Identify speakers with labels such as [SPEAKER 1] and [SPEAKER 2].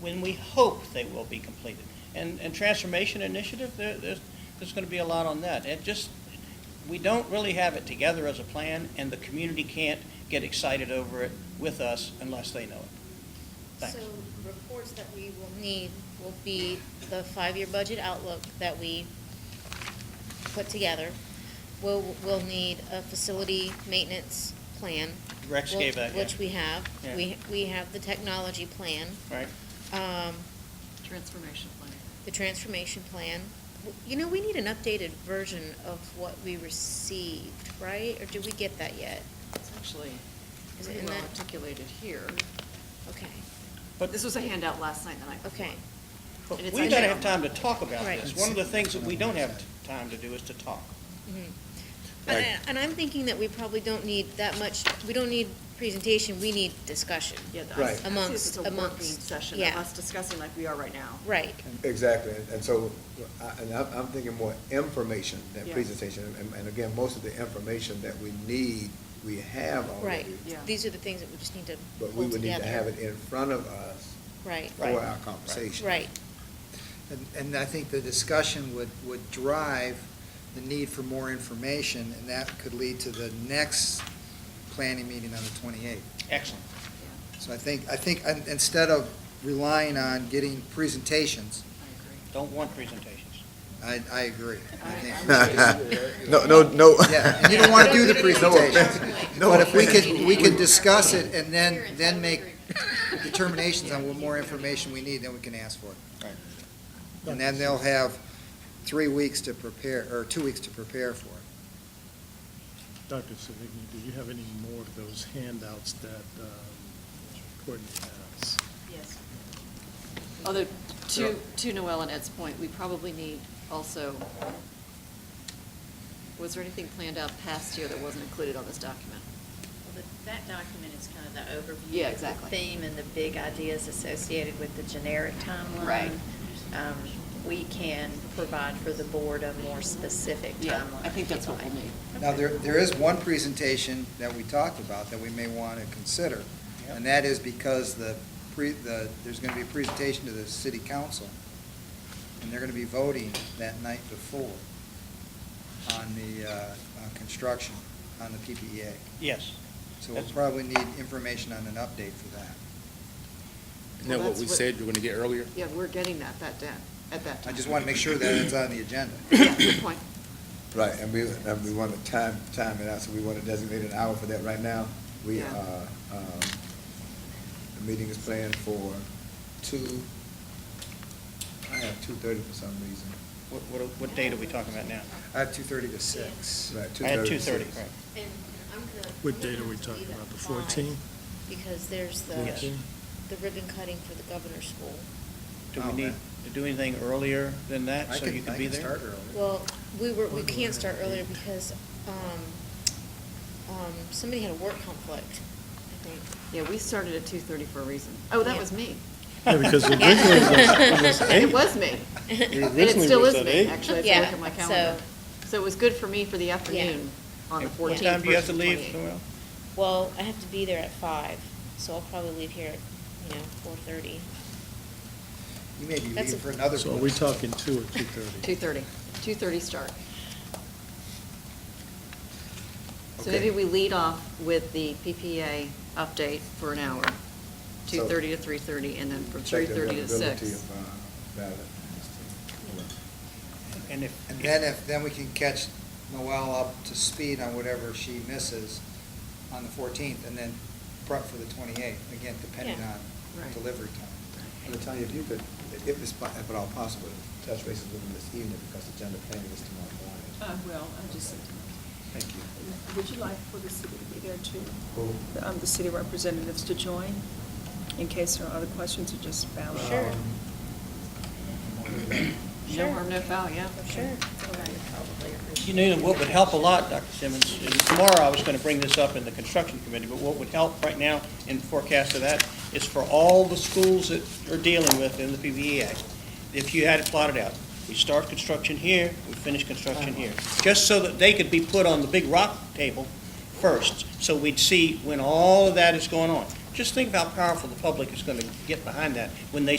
[SPEAKER 1] when we hope they will be completed. And, and transformation initiative, there, there's, there's gonna be a lot on that. It just, we don't really have it together as a plan, and the community can't get excited over it with us unless they know it. Thanks.
[SPEAKER 2] So reports that we will need will be the five-year budget outlook that we put together. We'll, we'll need a facility maintenance plan.
[SPEAKER 1] Rex
[SPEAKER 2] we'll-
[SPEAKER 1] gave that, yeah.
[SPEAKER 2] Which we have.
[SPEAKER 1] Yeah.
[SPEAKER 2] We, we have the technology plan,
[SPEAKER 1] Right?
[SPEAKER 2] um,
[SPEAKER 3] Transformation plan.
[SPEAKER 2] the transformation plan. W- You know, we need an updated version of what we received, right? Or did we get that yet?
[SPEAKER 3] It's actually
[SPEAKER 2] Is it
[SPEAKER 3] pretty
[SPEAKER 2] in
[SPEAKER 3] well
[SPEAKER 2] that-
[SPEAKER 3] articulated here.
[SPEAKER 2] Okay,
[SPEAKER 1] But-
[SPEAKER 3] This was a handout last night, the night before.
[SPEAKER 2] okay.
[SPEAKER 1] But
[SPEAKER 3] And it's
[SPEAKER 1] we gotta
[SPEAKER 3] actually-
[SPEAKER 1] have time to talk about
[SPEAKER 2] Right.
[SPEAKER 1] this. One of the things that we don't have t- time to do is to talk.
[SPEAKER 2] Mm-hmm. And,
[SPEAKER 4] Right.
[SPEAKER 2] and I'm thinking that we probably don't need that much, we don't need presentation, we need discussion.
[SPEAKER 3] Yeah, the- I
[SPEAKER 4] Right.
[SPEAKER 3] see this
[SPEAKER 2] Amongst-
[SPEAKER 3] as a working
[SPEAKER 2] amongst,
[SPEAKER 3] session of
[SPEAKER 2] yeah.
[SPEAKER 3] us discussing like we are right now.
[SPEAKER 2] Right,
[SPEAKER 4] Exactly, and- and so, I- and I'm, I'm thinking more information than
[SPEAKER 3] Yeah.
[SPEAKER 4] presentation. And, and again, most of the information that we need, we have
[SPEAKER 2] right.
[SPEAKER 4] already.
[SPEAKER 3] Yeah.
[SPEAKER 2] These are the things that we just need to pull
[SPEAKER 4] But we would need to
[SPEAKER 2] together.
[SPEAKER 4] have it in front of us
[SPEAKER 2] Right,
[SPEAKER 4] for
[SPEAKER 1] Right.
[SPEAKER 4] our conversation.
[SPEAKER 2] right,
[SPEAKER 5] And, and I think the discussion would, would drive the need for more information, and that could lead to the next planning meeting on the twenty-eighth.
[SPEAKER 1] Excellent.
[SPEAKER 5] So I think, I think, in- instead of relying on getting presentations,
[SPEAKER 3] I
[SPEAKER 1] Don't want presentations.
[SPEAKER 5] I, I agree. I think-
[SPEAKER 3] I- I'm
[SPEAKER 4] No, no, no.
[SPEAKER 5] Yeah, and you don't want to do the
[SPEAKER 4] No offense.
[SPEAKER 5] presentation.
[SPEAKER 4] No
[SPEAKER 5] But if we
[SPEAKER 4] offense.
[SPEAKER 5] could, we could discuss it and then, then make determinations on what more information we need, then we can ask for it.
[SPEAKER 1] Right.
[SPEAKER 5] And then they'll have three weeks to prepare, or two weeks to prepare for it.
[SPEAKER 6] Dr. Savigny, do you have any more of those handouts that um, Courtney has?
[SPEAKER 3] Yes. Although, to, to Noel and Ed's point, we probably need also, was there anything planned out past year that wasn't included on this document?
[SPEAKER 7] Well, that- That document is kind of the overview.
[SPEAKER 3] Yeah,
[SPEAKER 7] of the
[SPEAKER 3] exactly.
[SPEAKER 7] Theme and the big ideas associated with the generic timeline.
[SPEAKER 3] Right.
[SPEAKER 7] Um, We can provide for the board a more specific timeline.
[SPEAKER 3] Yeah, I
[SPEAKER 7] if
[SPEAKER 3] think that's
[SPEAKER 7] you'd
[SPEAKER 3] what
[SPEAKER 7] like.
[SPEAKER 3] we'll need.
[SPEAKER 5] Now, there, there is one presentation that we talked about that we may want to consider, and that is because the, pre, the, there's going to be a presentation to the city council, and they're going to be voting that night before on the, uh, on construction, on the PPEA.
[SPEAKER 1] Yes.
[SPEAKER 5] So we'll
[SPEAKER 1] That's-
[SPEAKER 5] probably need information on an update for that.
[SPEAKER 8] Isn't
[SPEAKER 3] Well,
[SPEAKER 8] that what
[SPEAKER 3] that's
[SPEAKER 8] we
[SPEAKER 3] what-
[SPEAKER 8] said, you're gonna get earlier?
[SPEAKER 3] Yeah, we're getting that, that, down at that
[SPEAKER 5] I
[SPEAKER 3] time.
[SPEAKER 5] just want to make sure that it's on the agenda.
[SPEAKER 3] Yeah, good point.
[SPEAKER 4] Right, and we, and we want to time, time it out, so we want to designate an hour for that right now. We,
[SPEAKER 3] Yeah.
[SPEAKER 4] uh, um, the meeting is planned for two, I have two thirty for some reason.
[SPEAKER 1] What, what, what date are we talking about now?
[SPEAKER 5] I have two thirty to six.
[SPEAKER 4] Right,
[SPEAKER 1] I had
[SPEAKER 4] 2:30.
[SPEAKER 1] two thirty, right.
[SPEAKER 2] And I'm gonna.
[SPEAKER 6] What
[SPEAKER 2] I'm gonna
[SPEAKER 6] date are we
[SPEAKER 2] have to
[SPEAKER 6] talking
[SPEAKER 2] leave at
[SPEAKER 6] about, the
[SPEAKER 2] five,
[SPEAKER 6] 14?
[SPEAKER 2] Because there's
[SPEAKER 1] Yes.
[SPEAKER 2] the, the ribbon cutting for the governor's school.
[SPEAKER 1] Do we
[SPEAKER 5] Oh,
[SPEAKER 1] need
[SPEAKER 5] man.
[SPEAKER 1] to do anything earlier than that,
[SPEAKER 5] I
[SPEAKER 1] so you can be there?
[SPEAKER 5] I can start early.
[SPEAKER 2] Well, we were, we can't start earlier because, um, um, somebody had a work conflict, I think.
[SPEAKER 3] Yeah, we started at two thirty for a reason. Oh, that
[SPEAKER 2] Yeah.
[SPEAKER 3] was me.
[SPEAKER 6] Yeah, because originally it was- it was
[SPEAKER 3] It
[SPEAKER 6] eight.
[SPEAKER 3] was me. And it
[SPEAKER 6] originally
[SPEAKER 3] still
[SPEAKER 6] was
[SPEAKER 3] is
[SPEAKER 6] at
[SPEAKER 3] me,
[SPEAKER 6] eight.
[SPEAKER 3] actually, if I look
[SPEAKER 2] Yeah,
[SPEAKER 3] at my
[SPEAKER 2] so-
[SPEAKER 3] calendar. So it was good for me for the afternoon on
[SPEAKER 1] And
[SPEAKER 3] the
[SPEAKER 1] What
[SPEAKER 3] fourteenth
[SPEAKER 1] time do you have to
[SPEAKER 3] versus
[SPEAKER 1] leave,
[SPEAKER 3] 28th.
[SPEAKER 1] Noel?
[SPEAKER 2] Well, I have to be there at five, so I'll probably leave here at, you know, four thirty.
[SPEAKER 5] You may be
[SPEAKER 2] That's
[SPEAKER 5] leaving
[SPEAKER 2] a-
[SPEAKER 5] for another.
[SPEAKER 6] So are we
[SPEAKER 5] one.
[SPEAKER 6] talking two or two thirty?
[SPEAKER 3] Two thirty. Two thirty start. So
[SPEAKER 4] Okay.
[SPEAKER 3] maybe we lead off with the PPA update for an hour, two thirty to three thirty, and then from three
[SPEAKER 4] Check the
[SPEAKER 3] thirty to
[SPEAKER 4] availability
[SPEAKER 3] six.
[SPEAKER 4] of, uh, ballot.
[SPEAKER 1] And if.
[SPEAKER 5] And then if, then we can catch Noel up to speed on whatever she misses on the fourteenth, and then prep for the twenty-eighth, again, depending
[SPEAKER 2] Yeah.
[SPEAKER 5] on
[SPEAKER 3] Right.
[SPEAKER 5] delivery time.
[SPEAKER 4] Latonya, if you could, if it's, po- if at all possible, touch bases with them this evening, because the agenda planning is tomorrow morning.
[SPEAKER 9] I will, Uh, I just,
[SPEAKER 4] Thank you.
[SPEAKER 9] would you like for the city to be there too?
[SPEAKER 4] Who?
[SPEAKER 9] The, um, The city representatives to join, in case there are other questions or just balance?
[SPEAKER 2] Sure.
[SPEAKER 4] Um,
[SPEAKER 3] No harm, no foul, yeah.
[SPEAKER 2] Sure.
[SPEAKER 1] You know, what would help a lot, Dr. Simmons, and tomorrow I was going to bring this up in the construction committee, but what would help right now in forecast of that is for all the schools that are dealing with in the PVEA, if you had it plotted out, we start construction here, we finish construction here, just so that they could be put on the big rock table first, so we'd see when all of that is going on. Just think of how powerful the public is going to get behind that, when they